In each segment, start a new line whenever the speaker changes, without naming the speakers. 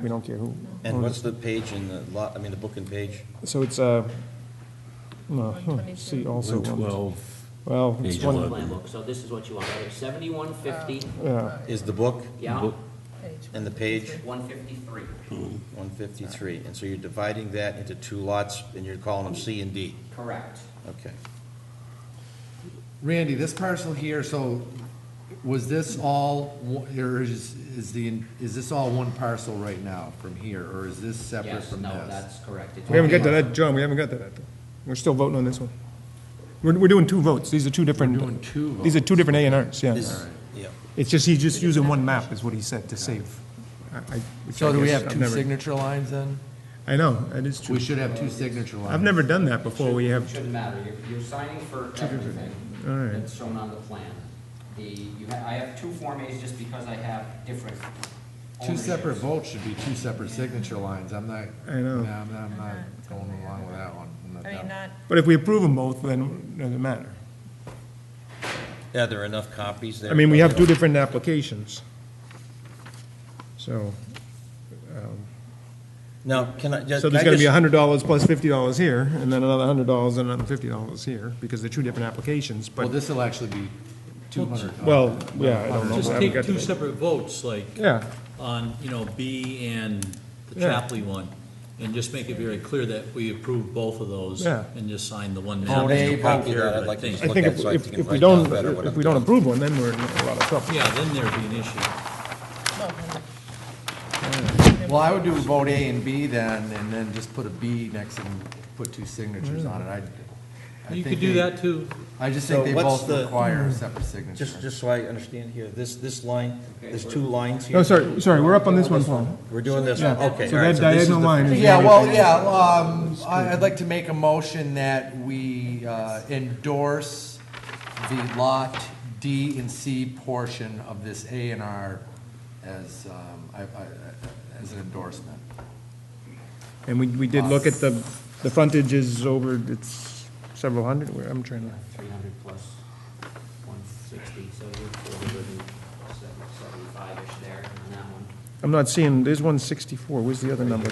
We don't care who.
And
owns
what's the page in the lot, I mean, the book and page?
it. So it's, uh, no, huh, see also.
One twelve,
Well, it's
Page
one,
eleven.
Plan book, so this is what you want, right? Seventy-one fifty,
Oh.
yeah,
Is the book
yeah,
and the page
one fifty-three.
one fifty-three? And so you're dividing that into two lots, and you're calling them C and D?
Correct.
Okay.
Randy, this parcel here, so was this all, one- or is, is the, is this all one parcel right now from here, or is this separate
Yes,
from
no,
this?
that's correct. It's
we haven't got to
one-
that, John, we haven't got to that. We're still voting on this one. We're, we're doing two votes. These are two different.
doing two
These are two different A and Rs, yeah.
This, yeah.
It's just, he's just using one map, is what he said, to save. I- I- which I
So do we
guess
have
I've
two
never-
signature lines then?
I know, that is true.
We should have two signature lines.
I've never done that before. We have,
Shouldn't matter, you're, you're signing for everything
All right.
that's shown on the plan. The, you ha I have two Form As just because I have different
Two
ownerships.
separate votes should be two separate signature lines, I'm not,
I know.
no, I'm not, I'm not going along with that one. I'm not
I mean,
down.
not,
but if we approve them both, then it doesn't matter.
Yeah, there are enough copies there?
I mean, we have two different applications. So,
Now, can I just?
so there's
can I
gonna be
just-
hundred dollars plus fifty dollars here, and then another hundred dollars and another fifty dollars here, because they're two different applications,
Well,
but,
this'll actually be two hundred.
well, yeah, I don't know.
just
I haven't
take
got
two
that.
separate votes, like
Yeah,
on, you know, B and the
Yeah.
Chapley one, and just make it very clear that we approve both of those.
Yeah.
And just sign the one.
Vote
now.
A,
Don't
vote B.
care,
I'd
but I
like to
think-
I
Look
think
at
if,
so I
if
can
if we
write down
don't,
better what
if
I'm
we don't
doing.
approve one, then we're in a lot of trouble.
Yeah, then there'd be an issue.
Well, I would do vote A and B then, and then just put a B next and put two signatures on it, I. I
You
think
could do
they-
that too.
I just
So
think they
what's
both
the- Mm-hmm.
require a separate signature.
Just, just so I understand here, this, this line, there's two lines here?
No, sorry, sorry, we're up on this one, Paul.
We're doing this
Yeah.
one, okay.
So
all right,
that
this is
diagonal
the-
line is.
Yeah, well, yeah, um, I- I'd like to make a motion that we uh, endorse the lot D and C portion of this A and R as, um, I- I- as an endorsement.
And we, we did look at the, the frontage is over, it's several hundred, Where- I'm trying to.
Three hundred plus one sixty, so you're four hundred and seventy-five-ish there on that one.
I'm not seeing, there's one sixty-four, where's the other number?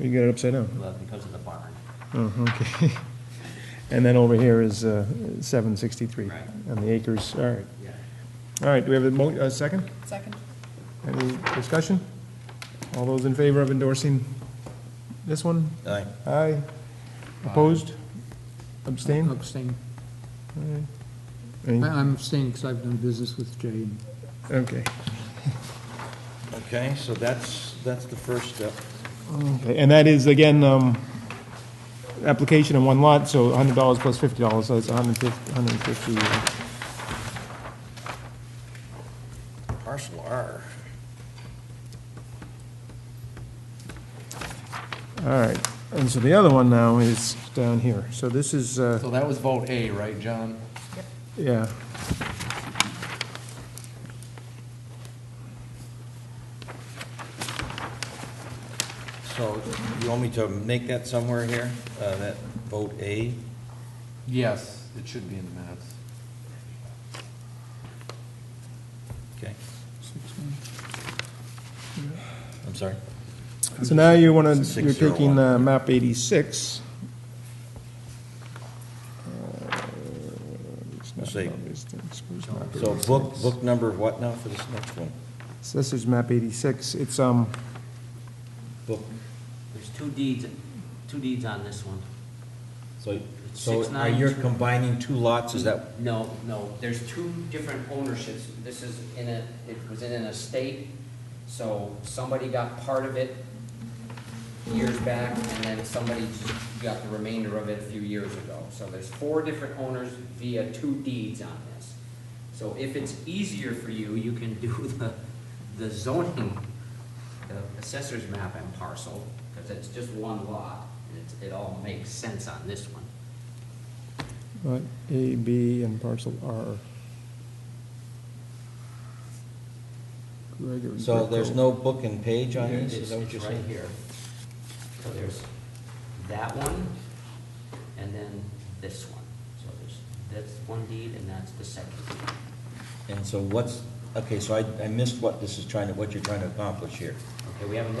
You got it upside down.
Well, because of the barn.
Oh, okay. And then over here is, uh, seven sixty-three,
Right.
and the acres, all right.
Yeah.
All right, do we have a mo, a second?
second,
Any discussion? All those in favor of endorsing this one?
Aye.
Aye. Opposed? Abstain?
Abstain.
Any-
I- I'm abstaining because I've done business with Jay. and
Okay.
Okay, so that's, that's the first step.
Okay, And that is, again, um, application in one lot, so hundred dollars plus fifty dollars, so it's hundred fifty, hundred and fifty.
Parcel R.
All right, and so the other one now is down here. So this is, uh,
So that was vote A, right, John?
yeah.
So you want me to make that somewhere here, uh, that vote A?
Yes, it should be in the minutes.
Okay. I'm sorry?
So now you want to, you're
Six zero
taking
one.
uh, map 86. Uh, it's not
See.
map 86, where's map
So book,
86?
book number what now for this next one?
So This is map 86. It's, um,
Book,
There's two deeds, two deeds on this one.
so, so
Six
are
nine
you
two.
combining two lots, is that?
No, no, there's two different ownerships. This is in a, it was in an estate, so somebody got part of it years back, and then somebody just got the remainder of it a few years ago. So there's four different owners via two deeds on this. So if it's easier for you, you can do the, the zoning, the assessor's map and parcel, because it's just one lot, and it's, it all makes sense on this one.
lot A, B, and parcel R. Gregory
So
Brick
there's
Road.
no book and page on this, is
It's
that what
it's
you're
right
saying?
here. So there's that one, and then this one. So there's, that's one deed, and that's the second deed.
And so what's, okay, so I, I missed what this is trying to, what you're trying to accomplish here.
Okay, we haven't